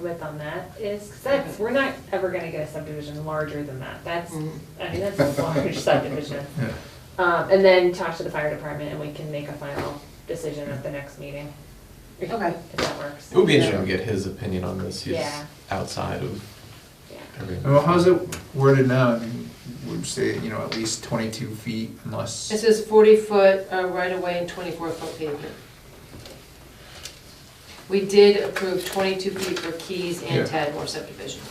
width on that is, 'cause that's, we're not ever gonna get a subdivision larger than that. That's, Mm-hmm. I mean, that's a large subdivision. Yeah. Um, and then talk to the fire department and we can make a final decision at the next meeting. Okay. If that works. It would be interesting to get his opinion on this. He's Yeah. outside of Yeah. everything. Well, how's it worded now? I mean, would say, you know, at least twenty-two feet It unless, says forty foot uh, right away and twenty-four foot pavement. We did approve twenty-two feet for Keys Yeah. and Tadmore subdivision.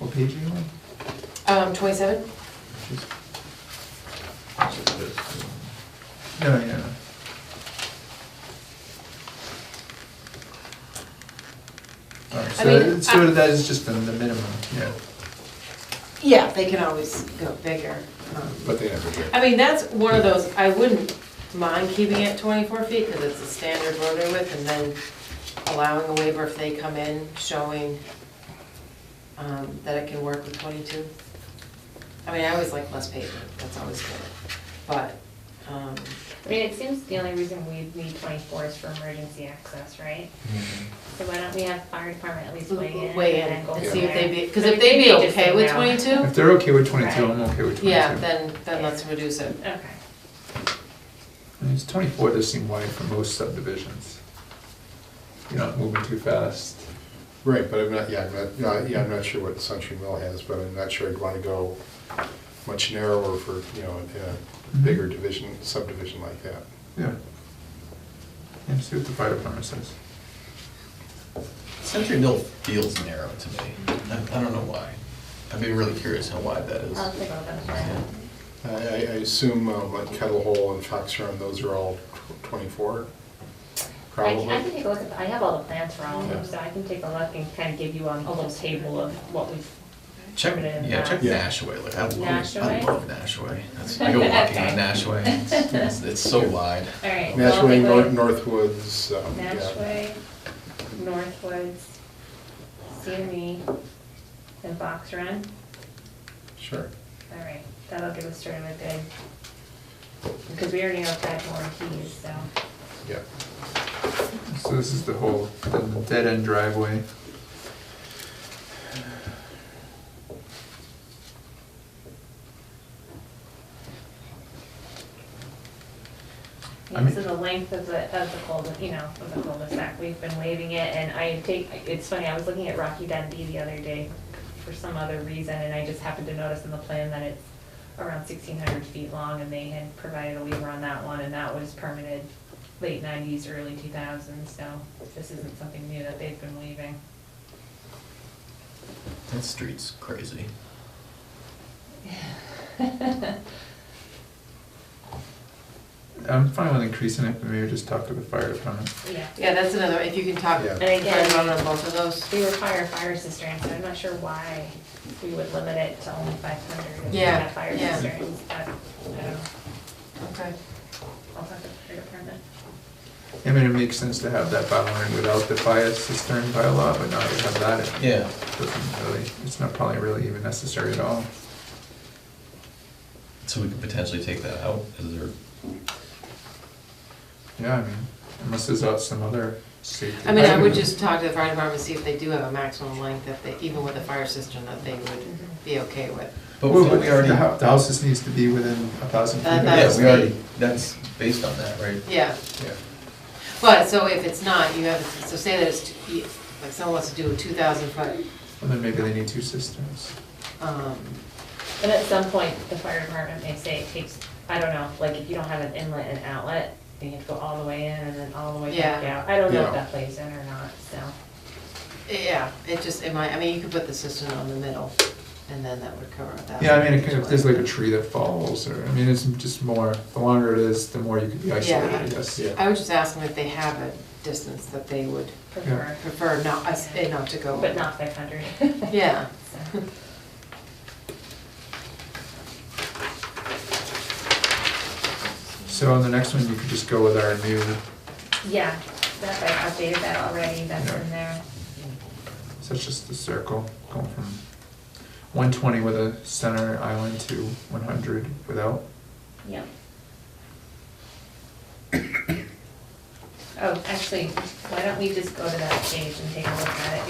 what page are you on? Um, twenty-seven? No, no, no. Alright, I mean, so, so that is just the, the minimum, yeah, Yeah, they can always go bigger. um, but they never do. I mean, that's one of those, I wouldn't mind keeping it twenty-four feet, because it's a standard roadway width, and then allowing a waiver if they come in showing um, that it can work with twenty-two. I mean, I always like less pavement, that's always good, but, um, I mean, it seems the only reason we need twenty-four is for emergency access, right? So why don't we have fire department at least weigh in? and weigh in then go and from see if there? they be, because I if mean, they be may just okay say with no. twenty-two, If they're okay with twenty-two, I'm okay with twenty-two. yeah, then, then let's reduce it. Okay. I mean, it's Twenty-four does seem wide for most subdivisions. You're not moving too fast. Right, but I'm not, yeah, I'm not, no, yeah, I'm not sure what Century Mill has, but I'm not sure I'd want to go much narrower for, you know, a bigger division, subdivision like that. Yeah. And see what the fire department says. Century Mill feels narrow to me. I, I don't know why. I'd be really curious how wide that is. I'll take a look at Yeah. that. I, I I assume um, like Kettle Hole and Fox Run, those are all tw- twenty-four, I can, I probably. can take a look at, the- I have all the plans for all of them, Yeah. so I can take a look and kind of give you um, a little table of what we've. Check, Put it in yeah, check the- Nashaway. Like I love, I Nashaway? love Nashaway. That's, I go walking Okay. on Nashaway. It's, it's so wide. All right. so I'll Nashway, take a Nor- look. Northwoods, um, yeah. Nashway, Northwoods, CME, and Box Run. Sure. All right, that'll give us sort of a good, because we already know that more keys, so. Yeah. So this is the whole, the dead end driveway. I Yeah, mean- so the length of the, of the cul-de, you know, of the cul-de-sac, we've been waiving it, and I take, it's funny, I was looking at Rocky Dundee the other day for some other reason, and I just happened to notice in the plan that it's around sixteen hundred feet long, and they had provided a waiver on that one, and that was permitted late nineties, early two thousands, so this isn't something new that they've been waiving. That street's crazy. I'm fine with increasing it, but maybe just talk to the fire department. Yeah. Yeah, that's another, if you can talk, Yeah. talk And again- about it on both of those. We require fire cisterns, so I'm not sure why we would limit it to only five hundred if we Yeah, have fire yeah. cisterns, but, I don't know. Okay. I'll talk to the fire department. I mean, it makes sense to have that byline without the fire cistern bylaw, but now you have that, it Yeah. doesn't really, it's not probably really even necessary at all. So we could potentially take that out. Is there? Yeah, I mean, unless there's out some other safety. I mean, I would just talk to the fire department, see if they do have a maximum length that they, even with a fire system, that they would be okay with. But Well, we but already. the hou- the houses needs to be within a thousand feet. Uh, of that- Yeah, the we already. That's based on that, right? Yeah, Yeah. but, so if it's not, you have, so say that it's, two- like, someone wants to do a two thousand foot, And then maybe they need two cisterns. um, And at some point, the fire department may say it takes, I don't know, like if you don't have an inlet and outlet, then you have to go all the way in and then all the way back Yeah. out. I don't know if Yeah. that plays in or not, so. yeah, it just, it might, I mean, you could put the system on the middle, and then that would cover that. Yeah, I mean, it could- if there's like a tree that falls, or, I mean, it's just more, the longer it is, the more you could be isolated, I guess. Yeah. I would just ask them if they have a distance that they would Prefer, prefer not, us, eh, not to go. but not five hundred. Yeah, So on the next one, you could just go with our new, Yeah, that, I updated that already, that's in there. so it's just the circle, going from one twenty with a center island to one hundred without. Yep. Oh, actually, why don't we just go to that page and take a look at it?